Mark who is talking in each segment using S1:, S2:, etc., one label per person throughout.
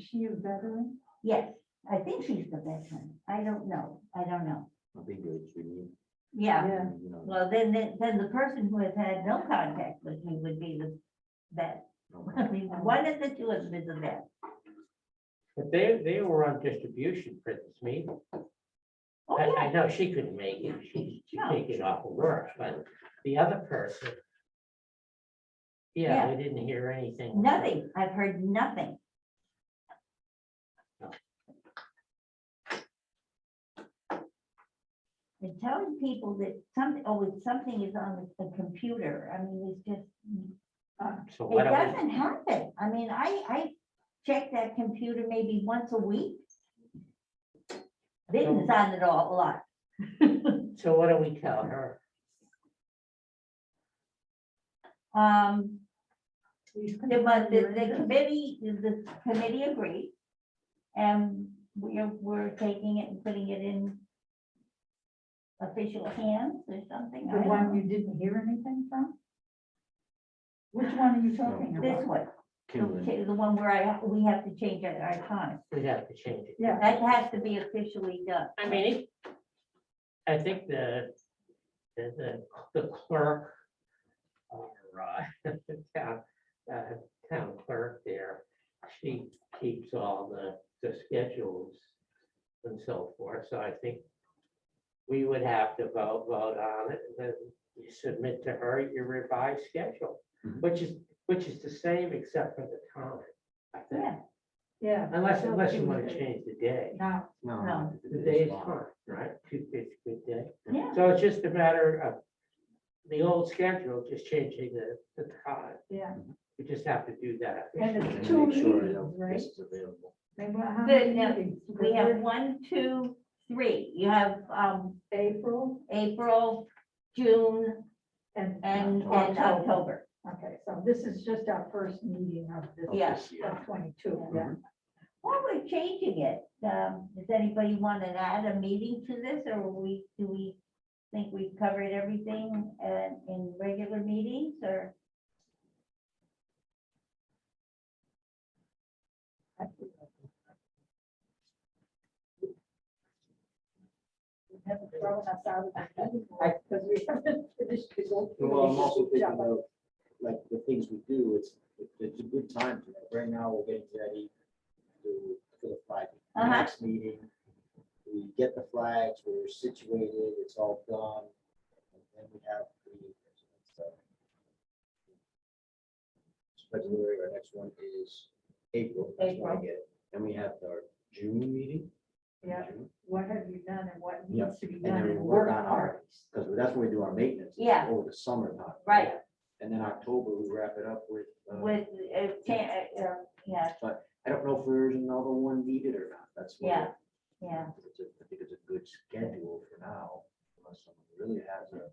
S1: she a veteran?
S2: Yes, I think she's the veteran. I don't know. I don't know.
S3: I think it's, we need,
S2: Yeah,
S1: Yeah.
S3: you know.
S2: well, then, then, then the person who has had no contact with me would be the vet. I mean, one of the two of them is a vet.
S4: But they, they were on distribution for this meeting.
S2: Oh,
S4: I,
S2: yeah.
S4: I know she couldn't make it. She's she's
S2: No.
S4: taking off of work, but the other person. Yeah, we didn't hear anything.
S2: Nothing. I've heard nothing. And telling people that something, oh, if something is on the the computer, I mean, it's just,
S4: So
S2: it
S4: what do
S2: doesn't happen. I mean, I, I check that computer maybe once a week. Vinton's on it all a lot.
S4: we, so what do we tell her?
S2: Um,
S1: Please
S2: The, but the,
S1: continue
S2: the
S1: your
S2: committee, the committee agreed. And we're, we're taking it and putting it in official hands or something. I
S1: The
S2: don't
S1: one
S2: know.
S1: you didn't hear anything from? Which one are you talking
S2: This
S1: about?
S2: one,
S3: Kimberly.
S2: the the one where I, ha- we have to change our, our time.
S4: We'd have to change it.
S1: Yeah.
S2: That has to be officially done.
S4: I mean, it- I think the, the, the clerk or, uh, the town, uh, town clerk there, she keeps all the, the schedules and so forth, so I think we would have to vote, vote on it, and then you submit to her your revised schedule,
S3: Mhm.
S4: which is, which is the same except for the time, I think,
S2: Yeah,
S1: Yeah.
S4: unless,
S1: so
S4: unless you
S1: it
S4: want
S1: was-
S4: to change the day.
S1: Now,
S3: No,
S2: No.
S3: it's-
S4: The
S3: it's
S4: day is
S3: fine.
S4: fine, right? Two, it's a good day.
S2: yeah.
S4: So it's just a matter of the old schedule, just changing the, the time.
S1: yeah,
S4: We just have to do that.
S1: and
S3: And
S1: it's two
S3: make sure
S1: meetings,
S3: that
S1: right?
S3: this is available.
S1: They were, how
S2: The-
S1: many
S2: no,
S1: meetings?
S2: We have
S1: Because
S2: one, two, three. You have, um,
S1: we're April
S2: April, June,
S1: and,
S2: and, and
S1: October.
S2: October.
S1: okay, so this is just our first meeting of this.
S3: of
S2: Yeah.
S3: this year.
S1: Of twenty-two, yeah.
S2: Well, we're changing it. Um, does anybody want to add a meeting to this or will we, do we think we've covered everything uh, in regular meetings or?
S4: Mm-hmm.
S1: You haven't thrown us out of the meeting
S4: I-
S1: because we haven't finished. the whole
S3: Well, I'm also
S1: meeting.
S3: thinking of, like, the things we do, it's, it- it's a good time to, like, right now, we're getting ready to, for the flag.
S2: Uh-huh.
S3: Next meeting, we get the flags, we're situated, it's all done, and then we have the, so. February, our next one is April, that's when I
S2: April.
S3: get it, and we have our June meeting. in
S1: Yeah,
S3: June,
S1: what have you done and what
S3: Yeah,
S1: needs to be
S3: And
S1: done
S3: then we
S1: in
S3: work
S1: work
S3: on
S1: hard.
S3: our, because that's when we do our maintenance. is
S2: Yeah.
S3: Over the summertime.
S2: Right,
S3: And then October, we wrap it up with, uh,
S2: with, uh, cha- uh, uh, yeah,
S3: I don't know if there's another one needed or not, that's. what
S2: Yeah,
S3: it-
S2: yeah.
S3: it's a- I think it's a good schedule for now, unless someone really has a-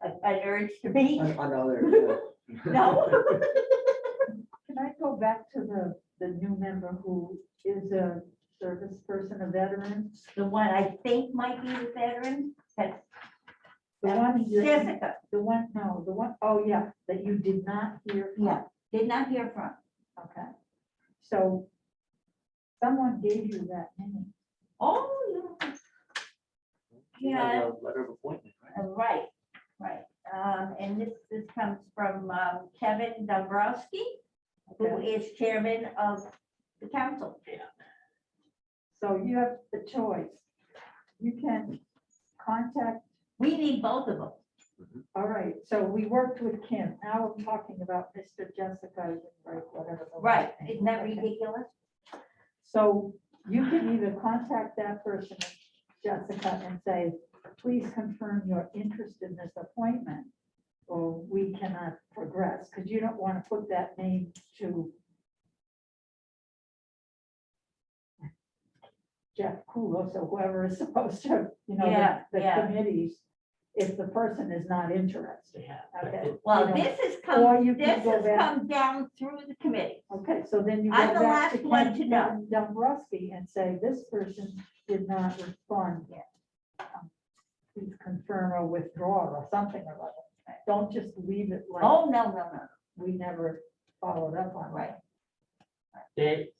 S2: a- An urge to be,
S3: an- another. uh, yeah.
S2: No.
S1: Can I go back to the, the new member who is a service person, a veteran?
S2: the one I think might be the veteran, that's
S1: The one, you-
S2: Jessica.
S1: the one, no, the one, oh yeah, that you did not hear. from.
S2: Yeah, did not hear from.
S1: Okay. So someone gave you that name.
S2: Oh, yeah.
S3: We have
S2: Yeah.
S3: a Letter of appointment, right?
S2: Uh, Right, right. Um, and this, this comes from um, Kevin Dombrowski, who
S1: Okay.
S2: is chairman of the council.
S1: So you have the choice. You can contact,
S2: We need both of them.
S1: all right, so we worked with Kim. Now we're talking about Mr. Jessica, right, whatever. the last
S2: Right,
S1: name is.
S2: isn't that
S1: Okay.
S2: ridiculous?
S1: So you can either contact that person, Jessica, and say, please confirm your interest in this appointment. Or we cannot progress, because you don't want to put that name to Jeff Kulos or whoever is supposed to, you know,
S2: Yeah,
S1: the- the
S2: yeah.
S1: committees, if the person is not interested.
S4: Yeah.
S1: Okay.
S2: Well,
S1: You know,
S2: this has
S1: or
S2: come,
S1: you can
S2: this
S1: go
S2: has
S1: back-
S2: come down through the committee.
S1: Okay, so then you.
S2: I'm
S1: go
S2: the
S1: back
S2: last one to
S1: Ken
S2: know.
S1: Dombrowski and say, this person did not respond yet. Um, Please confirm or withdraw or something or other. Don't just leave it like
S2: Oh, no, no, no,
S1: we never followed up on. it.
S2: Right.
S4: They,